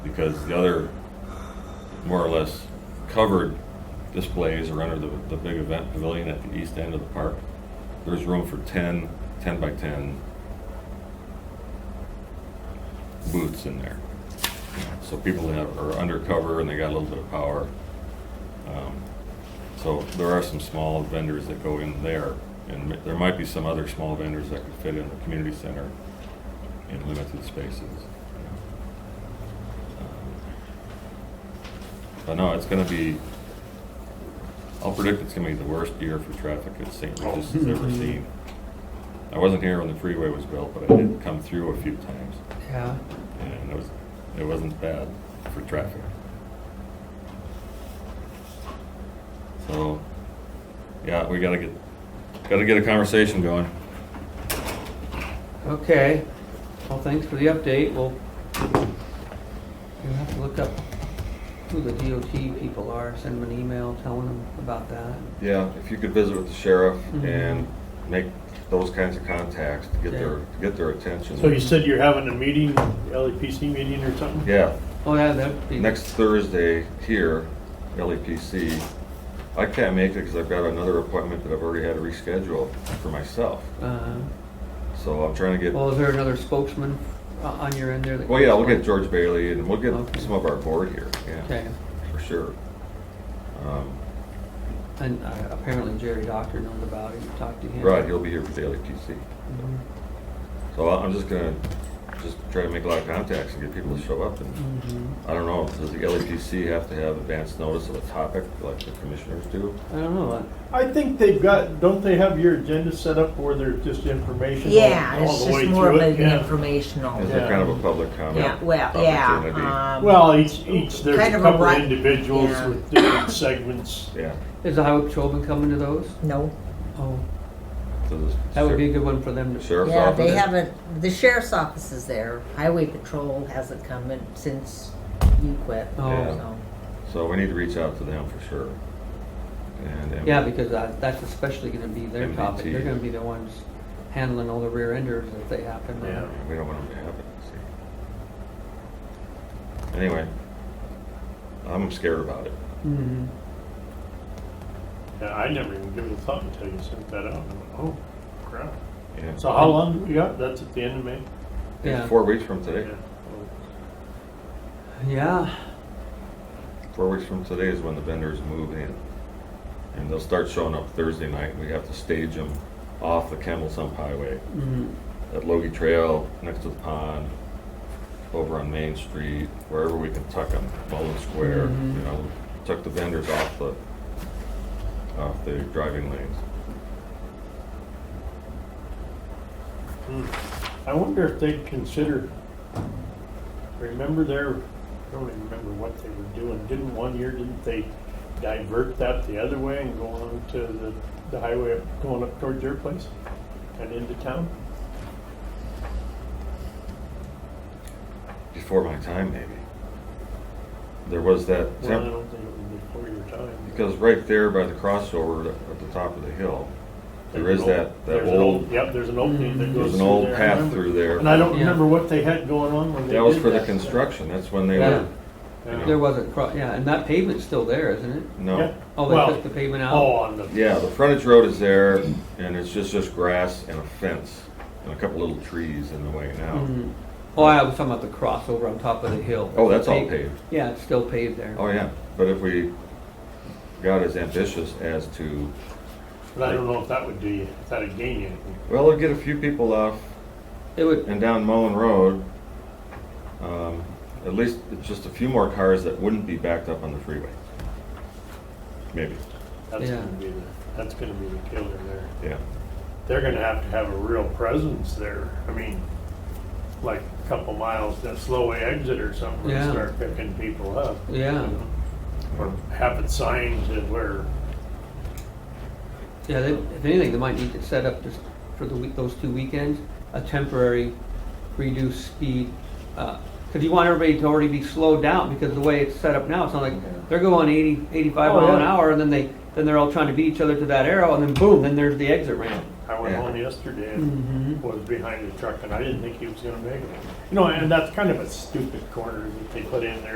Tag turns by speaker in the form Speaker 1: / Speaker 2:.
Speaker 1: because the other more or less covered displays are under the, the big event pavilion at the east end of the park. There's room for 10, 10 by 10 booths in there. So people have, are undercover and they got a little bit of power. Um, So there are some small vendors that go in there, and there might be some other small vendors that could fit in the community center in limited spaces. But no, it's gonna be, I'll predict it's gonna be the worst year for traffic at St. Regis has ever seen. I wasn't here when the freeway was built, but I did come through a few times,
Speaker 2: Yeah,
Speaker 1: and it was, it wasn't bad for traffic. So, yeah, we gotta get, gotta get a conversation going.
Speaker 2: okay. Well, thanks for the update. We'll you have to look up who the DOT people are, send them an email telling them about that.
Speaker 1: Yeah, if you could visit with the sheriff
Speaker 2: Mhm.
Speaker 1: and make those kinds of contacts to get their,
Speaker 2: Yeah.
Speaker 1: to get their attention.
Speaker 3: So you said you're having a meeting, LEPC meeting or something?
Speaker 1: Yeah,
Speaker 2: Oh, yeah, that'd be.
Speaker 1: next Thursday here, LEPC. I can't make it because I've got another appointment that I've already had to reschedule for myself.
Speaker 2: Uh,
Speaker 1: So I'm trying to get,
Speaker 2: Well, is there another spokesman o- on your end there? that-
Speaker 1: well, Oh, yeah, we'll get George Bailey and we'll get
Speaker 2: Okay.
Speaker 1: some of our board here, yeah,
Speaker 2: Okay,
Speaker 1: for sure. Um,
Speaker 2: and uh, apparently Jerry Doctor knows about it, you talked to him.
Speaker 1: Right, he'll be here for the LEPC.
Speaker 2: Mhm,
Speaker 1: So I- I'm just gonna, just try to make a lot of contacts and get people to show up and
Speaker 2: mhm.
Speaker 1: I don't know, does the LEPC have to have advance notice of a topic like the commissioners do?
Speaker 2: I don't know, uh,
Speaker 3: I think they've got, don't they have your agenda set up where there's just information? all-
Speaker 4: Yeah,
Speaker 3: all
Speaker 4: it's
Speaker 3: the
Speaker 4: just
Speaker 3: way
Speaker 4: more
Speaker 3: through
Speaker 4: of
Speaker 3: it?
Speaker 4: an
Speaker 3: Yeah.
Speaker 2: Oh,
Speaker 1: Is
Speaker 4: informational.
Speaker 1: there kind of a public comment?
Speaker 4: Yeah, well, yeah.
Speaker 1: opportunity?
Speaker 4: um,
Speaker 3: Well, each, each, there's
Speaker 4: Kind
Speaker 3: a
Speaker 4: of a
Speaker 3: couple
Speaker 4: right-
Speaker 3: individuals
Speaker 4: yeah.
Speaker 3: with different segments.
Speaker 1: Yeah.
Speaker 2: is the highway patrolman coming to those?
Speaker 4: No,
Speaker 2: Oh,
Speaker 1: so this-
Speaker 2: that would be a good one for them to.
Speaker 1: Sheriff's
Speaker 4: yeah, they
Speaker 1: office?
Speaker 4: haven't, the sheriff's office is there, highway patrol hasn't come in since you quit.
Speaker 2: Oh,
Speaker 4: so.
Speaker 1: So we need to reach out to them for sure. And, and-
Speaker 2: Yeah, because that- that's especially gonna be their topic.
Speaker 1: MDT.
Speaker 2: They're gonna be the ones handling all the rear enders if they happen.
Speaker 3: Yeah.
Speaker 1: We don't want them to have it, see. Anyway, I'm scared about it.
Speaker 2: Mhm.
Speaker 3: Yeah, I never even give it a thought until you sent that out. I'm like, Oh, crap.
Speaker 1: Yeah.
Speaker 3: So how long do we got? That's at the end of May?
Speaker 2: Yeah.
Speaker 1: It's four weeks from
Speaker 3: Yeah.
Speaker 1: today.
Speaker 2: Yeah,
Speaker 1: Four weeks from today is when the vendors move in. And they'll start showing up Thursday night. We have to stage them off the Campbell Sump Highway.
Speaker 2: mhm.
Speaker 1: at Logie Trail, next to the pond, over on Main Street, wherever we can tuck them, Mullen Square,
Speaker 3: Mm-hmm.
Speaker 2: Mhm.
Speaker 1: you know, tuck the vendors off the, off the driving lanes.
Speaker 3: Hmm. I wonder if they'd consider, remember their, I don't even remember what they were doing. Didn't one year, didn't they divert that the other way and go on to the, the highway, up- going up towards your place and into town?
Speaker 1: Before my time, maybe. There was that,
Speaker 3: Well, I
Speaker 1: temp-
Speaker 3: don't think it was before your time.
Speaker 1: because right there by the crossover at the top of the hill, there
Speaker 3: There's
Speaker 1: is
Speaker 3: an
Speaker 1: that, that
Speaker 3: there's an
Speaker 1: old, Mm-hmm.
Speaker 3: Yep, there's an opening that goes
Speaker 1: there's an
Speaker 3: through
Speaker 1: old
Speaker 3: there. I
Speaker 1: path
Speaker 3: remember.
Speaker 1: through there.
Speaker 3: And I don't
Speaker 2: Yeah.
Speaker 3: remember what they had going on when they did
Speaker 1: That was for the
Speaker 3: stuff.
Speaker 1: construction, that's when they
Speaker 2: Yeah.
Speaker 1: were, you
Speaker 3: Yeah.
Speaker 2: There
Speaker 1: know,
Speaker 2: was a, cro- yeah, and that pavement's still there, isn't it?
Speaker 3: Yeah.
Speaker 1: no.
Speaker 2: Oh, they took
Speaker 3: Well,
Speaker 2: the pavement
Speaker 3: oh,
Speaker 2: out?
Speaker 3: on the.
Speaker 1: Yeah, the frontage road is there, and it's just, just grass and a fence, and a couple little trees in the way now.
Speaker 3: Mm-hmm.
Speaker 2: Mhm. Oh, I was talking about the crossover on top of the hill.
Speaker 1: Oh, that's all
Speaker 2: Pa-
Speaker 1: paved.
Speaker 2: Yeah, it's still paved there.
Speaker 1: Oh, yeah, but if we got as ambitious as to,
Speaker 3: But I don't know if that would do you, if that'd gain you anything.
Speaker 1: well, it'll get a few people off
Speaker 2: It would,
Speaker 1: and down Mullen Road, um, at least it's just a few more cars that wouldn't be backed up on the freeway. Maybe,
Speaker 3: That's
Speaker 2: Yeah.
Speaker 3: gonna be the, that's gonna be the killer there.
Speaker 1: yeah.
Speaker 3: They're gonna have to have a real presence there. I mean, like a couple miles, that slowway exit or something, and
Speaker 2: Yeah.
Speaker 3: start picking people up.
Speaker 2: yeah,
Speaker 3: Or have it signed to where,
Speaker 2: yeah, they- if anything, they might need to set up just for the week, those two weekends, a temporary reduced speed. uh 'cause you want everybody to already be slowed down because the way it's set up now, it's not like they're going 80, 85
Speaker 3: Oh,
Speaker 2: mile an
Speaker 3: yeah.
Speaker 2: hour and then they, then they're all trying to beat each other to that arrow and then boom, then there's the exit ramp.
Speaker 3: I went
Speaker 1: Yeah.
Speaker 3: home yesterday and
Speaker 2: Mhm.
Speaker 3: was behind the truck and I didn't think he was gonna make it. You know, and that's kind of a stupid corner that they put in there.